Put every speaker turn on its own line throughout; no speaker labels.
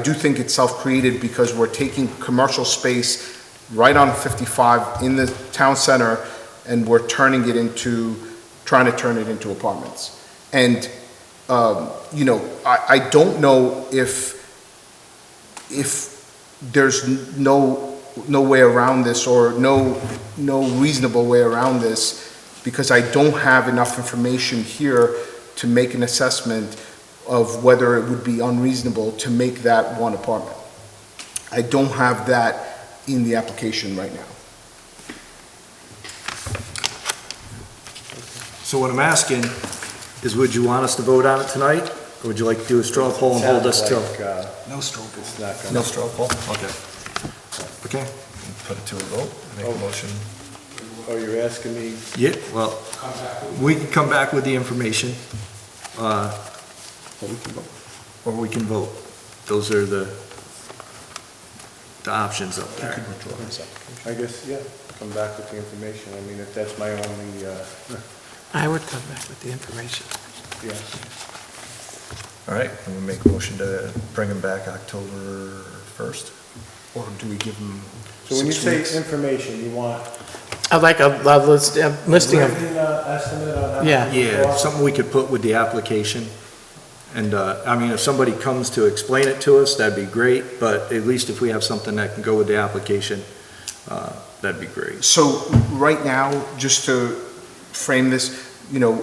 I do think it's self-created because we're taking commercial space right on 55 in the town center, and we're turning it into, trying to turn it into apartments. And, um, you know, I, I don't know if, if there's n- no, no way around this, or no, no reasonable way around this, because I don't have enough information here to make an assessment of whether it would be unreasonable to make that one apartment. I don't have that in the application right now.
So what I'm asking is, would you want us to vote on it tonight? Or would you like to do a straw poll and hold us till?
uh,
No straw poll.
No straw poll. Okay. Okay.
Put it to a vote, make a motion.
Oh, you're asking me?
Yeah, well, we can come back with the information. uh, Or we can vote. Those are the, the options up there.
I guess, yeah, come back with the information. I mean, if that's my only, uh,
I would come back with the information.
yeah.
All right, and we make a motion to bring them back October 1st.
Or do we give them
So when you
six
say
weeks?
information, you want
I'd like a a list- a listing of,
written uh, estimate on how
Yeah.
much it
Yeah,
costs?
something we could put with the application. And, uh, I mean, if somebody comes to explain it to us, that'd be great, but at least if we have something that can go with the application, uh, that'd be great.
So, right now, just to frame this, you know,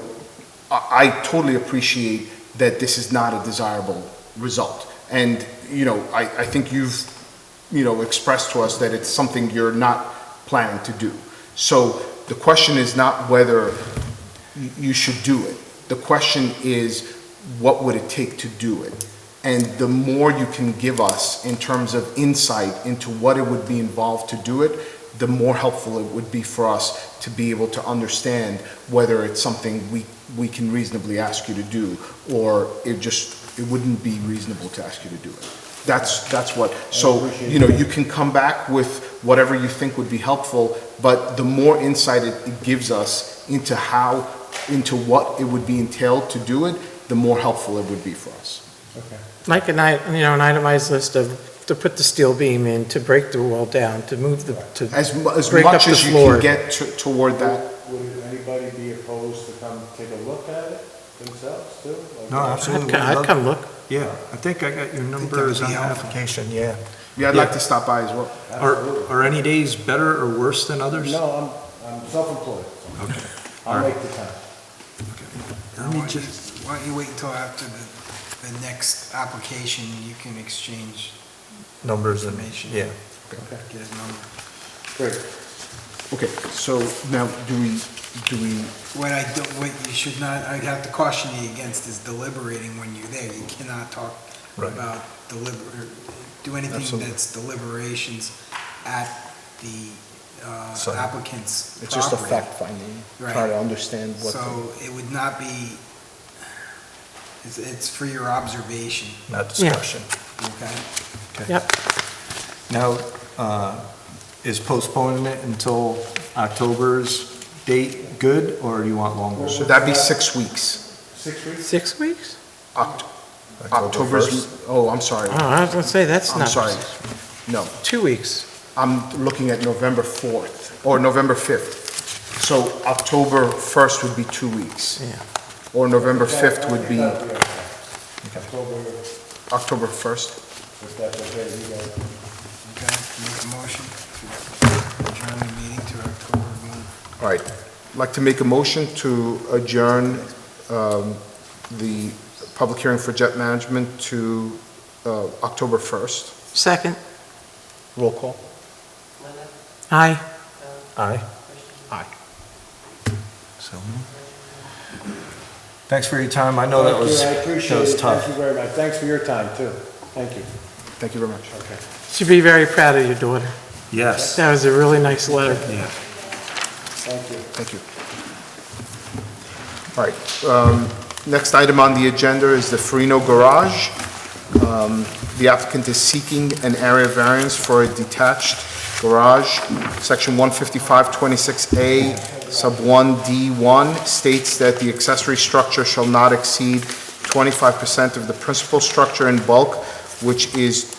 I, I totally appreciate that this is not a desirable result. And, you know, I, I think you've, you know, expressed to us that it's something you're not planning to do. So, the question is not whether you- you should do it. The question is, what would it take to do it? And the more you can give us in terms of insight into what it would be involved to do it, the more helpful it would be for us to be able to understand whether it's something we, we can reasonably ask you to do, or it just, it wouldn't be reasonable to ask you to do it. That's, that's what, so, you know, you can come back with whatever you think would be helpful, but the more insight it it gives us into how, into what it would be entailed to do it, the more helpful it would be for us.
like an, i- you know, an itemized list of, to put the steel beam in, to break the wall down, to move the, to,
As, mu- as
Break up
much
the
as you
floor.
can get to- toward that,
Would anybody be opposed to come take a look at it themselves too? Like- uh,
No, absolutely.
I'd co- I'd come look.
Yeah, I think I got your numbers on that.
application, yeah.
yeah, I'd like to stop by as well.
Are, are any days better or worse than others?
No, I'm, I'm self-employed.
Okay.
I'll make the time.
Let me
Why don't you-
just-
why don't you wait until after the, the next application, you can exchange,
Numbers and,
Information.
yeah.
get his number.
Great.
Okay, so now, do we, do we,
What I don't, what you should not, I'd have to caution you against is deliberating when you're there. You cannot talk
Right.
about deliber, do anything
Absolutely.
that's deliberations at the uh,
So-
applicant's property.
it's just a fact finding,
Right.
trying to understand what. the-
So it would not be, it's, it's for your observation,
Not discussion.
okay?
Yep,
Now, uh, is postponing it until October's date good, or do you want longer?
So that'd be six weeks.
Six weeks?
six weeks?
Oct-
October
October's,
1st.
oh, I'm sorry,
Oh, I was gonna say, that's
I'm
not,
sorry. No,
two weeks.
I'm looking at November 4th, or November 5th. So October 1st would be two weeks.
Yeah.
Or November 5th would be
October,
October 1st.
if that's okay, you guys.
Okay, make a motion to adjourn the meeting to October 1.
All right. Like to make a motion to adjourn um, the public hearing for jet management to uh, October 1st.
Second,
Roll call.
aye.
Aye.
Aye.
So. Thanks for your time. I know that was,
Thank you, I
that
appreciate
was
it. Thank you
tough.
very much. Thanks for your time too. Thank you.
Thank you very much.
Okay.
Should be very proud of your daughter.
Yes.
That was a really nice letter.
Yeah.
Thank you.
Thank you. All right, um, next item on the agenda is the Farino Garage. Um, The applicant is seeking an area variance for a detached garage. Section 15526A, sub 1D1 states that the accessory structure shall not exceed 25% of the principal structure in bulk which is